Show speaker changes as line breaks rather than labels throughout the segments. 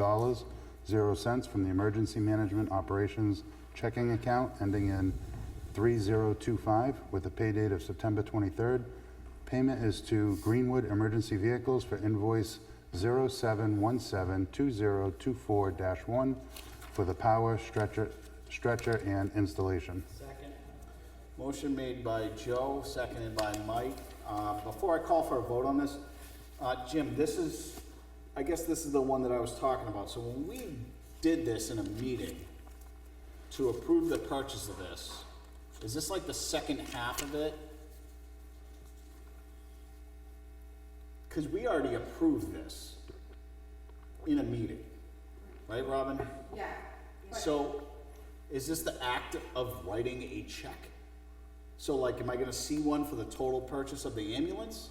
dollars, zero cents from the Emergency Management Operations checking account ending in 3025 with a pay date of September 23rd. Payment is to Greenwood Emergency Vehicles for invoice 07172024-1 for the power stretcher, stretcher and installation.
Motion made by Joe, seconded by Mike. Uh, Before I call for a vote on this, uh, Jim, this is, I guess this is the one that I was talking about. So when we did this in a meeting to approve the purchase of this, is this like the second half of it? Because we already approved this in a meeting, right, Robin?
Yeah,
So, is this the act of writing a check? So like, am I gonna see one for the total purchase of the ambulance?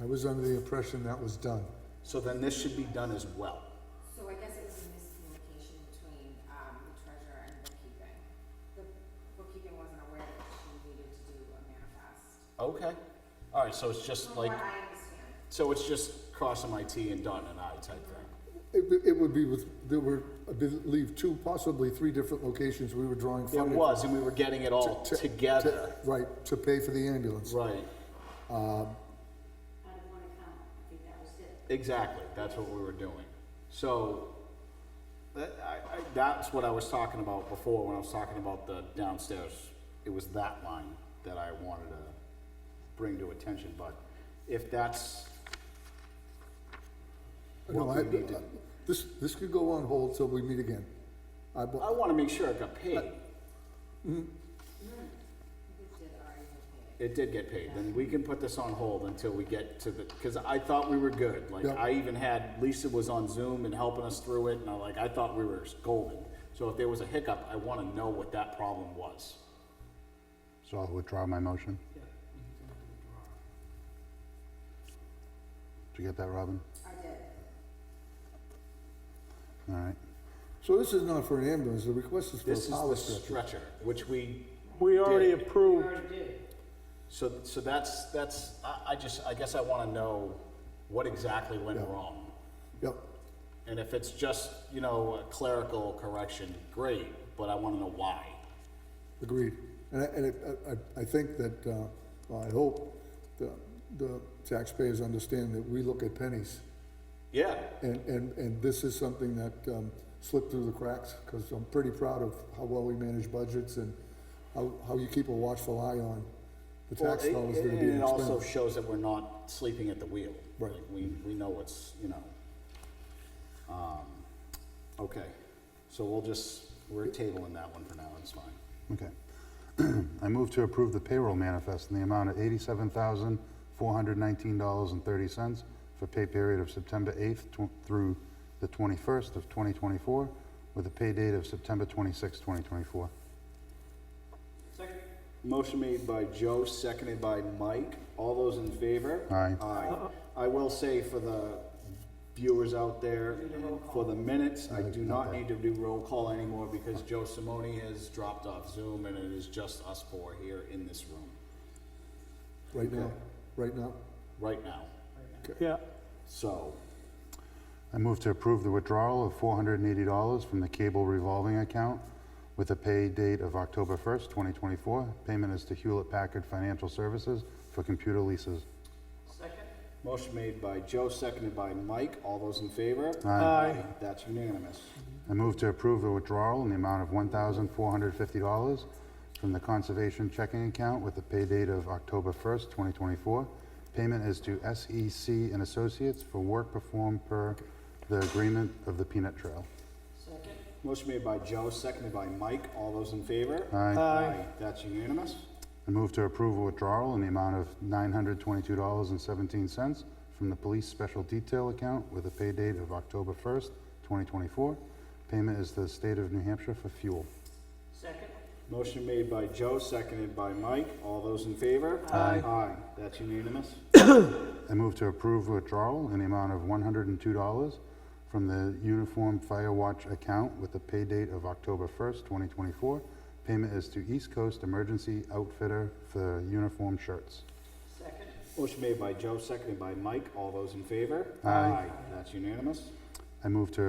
I was under the impression that was done.
So then this should be done as well.
so I guess it was a miscommunication between, um, the treasurer and bookkeeping. The bookkeeping wasn't aware that she needed to do a manifest,
Okay. Alright, so it's just
from
like,
what I understand.
so it's just crossing my T and dotting an I type thing.
It, w- it would be with, there were, I believe, two, possibly three different locations we were drawing
There
funding.
was, and we were getting it all
to- to-
together.
Right, to pay for the ambulance.
Right, Uh,
out of one account, I think that was it.
exactly, that's what we were doing. So, that, I, I, that's what I was talking about before, when I was talking about the downstairs. It was that line that I wanted to bring to attention, but if that's,
No,
What
I,
we need to-
this, this could go on hold till we meet again. I, bu-
I wanna make sure it got paid. It did get paid, then we can put this on hold until we get to the, cause I thought we were good, like,
Yeah.
I even had, Lisa was on Zoom and helping us through it, and I like, I thought we were golden. So if there was a hiccup, I wanna know what that problem was.
So I'll withdraw my motion. Did you get that, Robin?
I did.
All right.
so this is not for an ambulance, the request is for
This is
a
the
power stretcher.
stretcher, which we,
We already
Did.
approved,
so, so that's, that's, I, I just, I guess I wanna know what exactly went wrong.
Yep,
And if it's just, you know, a clerical correction, great, but I wanna know why.
agreed. And I, and it- I, I, I think that, uh, well, I hope the, the taxpayers understand that we look at pennies.
Yeah,
And, and, and this is something that um, slipped through the cracks, because I'm pretty proud of how well we manage budgets and how, how you keep a watchful eye on the
Well,
tax
it-
dollars that are being
And it also
spent.
shows that we're not sleeping at the wheel.
Right.
Like, We, we know what's, you know. Um, Okay, so we'll just, we're tabling that one for now, it's fine.
Okay. I move to approve the payroll manifest in the amount of eighty-seven thousand, four hundred nineteen dollars and thirty cents for pay period of September eighth through the twenty-first of twenty twenty-four, with a pay date of September twenty-sixth, twenty twenty-four.
Motion made by Joe, seconded by Mike. All those in favor?
Aye.
Aye. I will say for the viewers out there, for the minutes, I do not need to do roll call anymore because Joe Simone has dropped off Zoom and it is just us four here in this room
Right now, right now.
right now.
yeah.
So,
I move to approve the withdrawal of four hundred and eighty dollars from the cable revolving account with a pay date of October first, twenty twenty-four. Payment is to Hewlett Packard Financial Services for computer leases.
motion made by Joe, seconded by Mike. All those in favor?
Aye.
That's unanimous.
I move to approve the withdrawal in the amount of $1,450 from the Conservation Checking Account with the pay date of October 1st, 2024. Payment is to SEC and Associates for work performed per the agreement of the Peanut Trail.
Motion made by Joe, seconded by Mike. All those in favor?
Aye.
Aye. That's unanimous.
I move to approve a withdrawal in the amount of $922.17 from the Police Special Detail Account with a pay date of October 1st, 2024. Payment is to the State of New Hampshire for fuel.
Motion made by Joe, seconded by Mike. All those in favor?
Aye.
Aye. That's unanimous.
I move to approve withdrawal in the amount of $102 from the Uniform Fire Watch account with the pay date of October 1st, 2024. Payment is to East Coast Emergency Outfitter for uniform shirts.
Motion made by Joe, seconded by Mike. All those in favor?
Aye.
That's unanimous.
I move to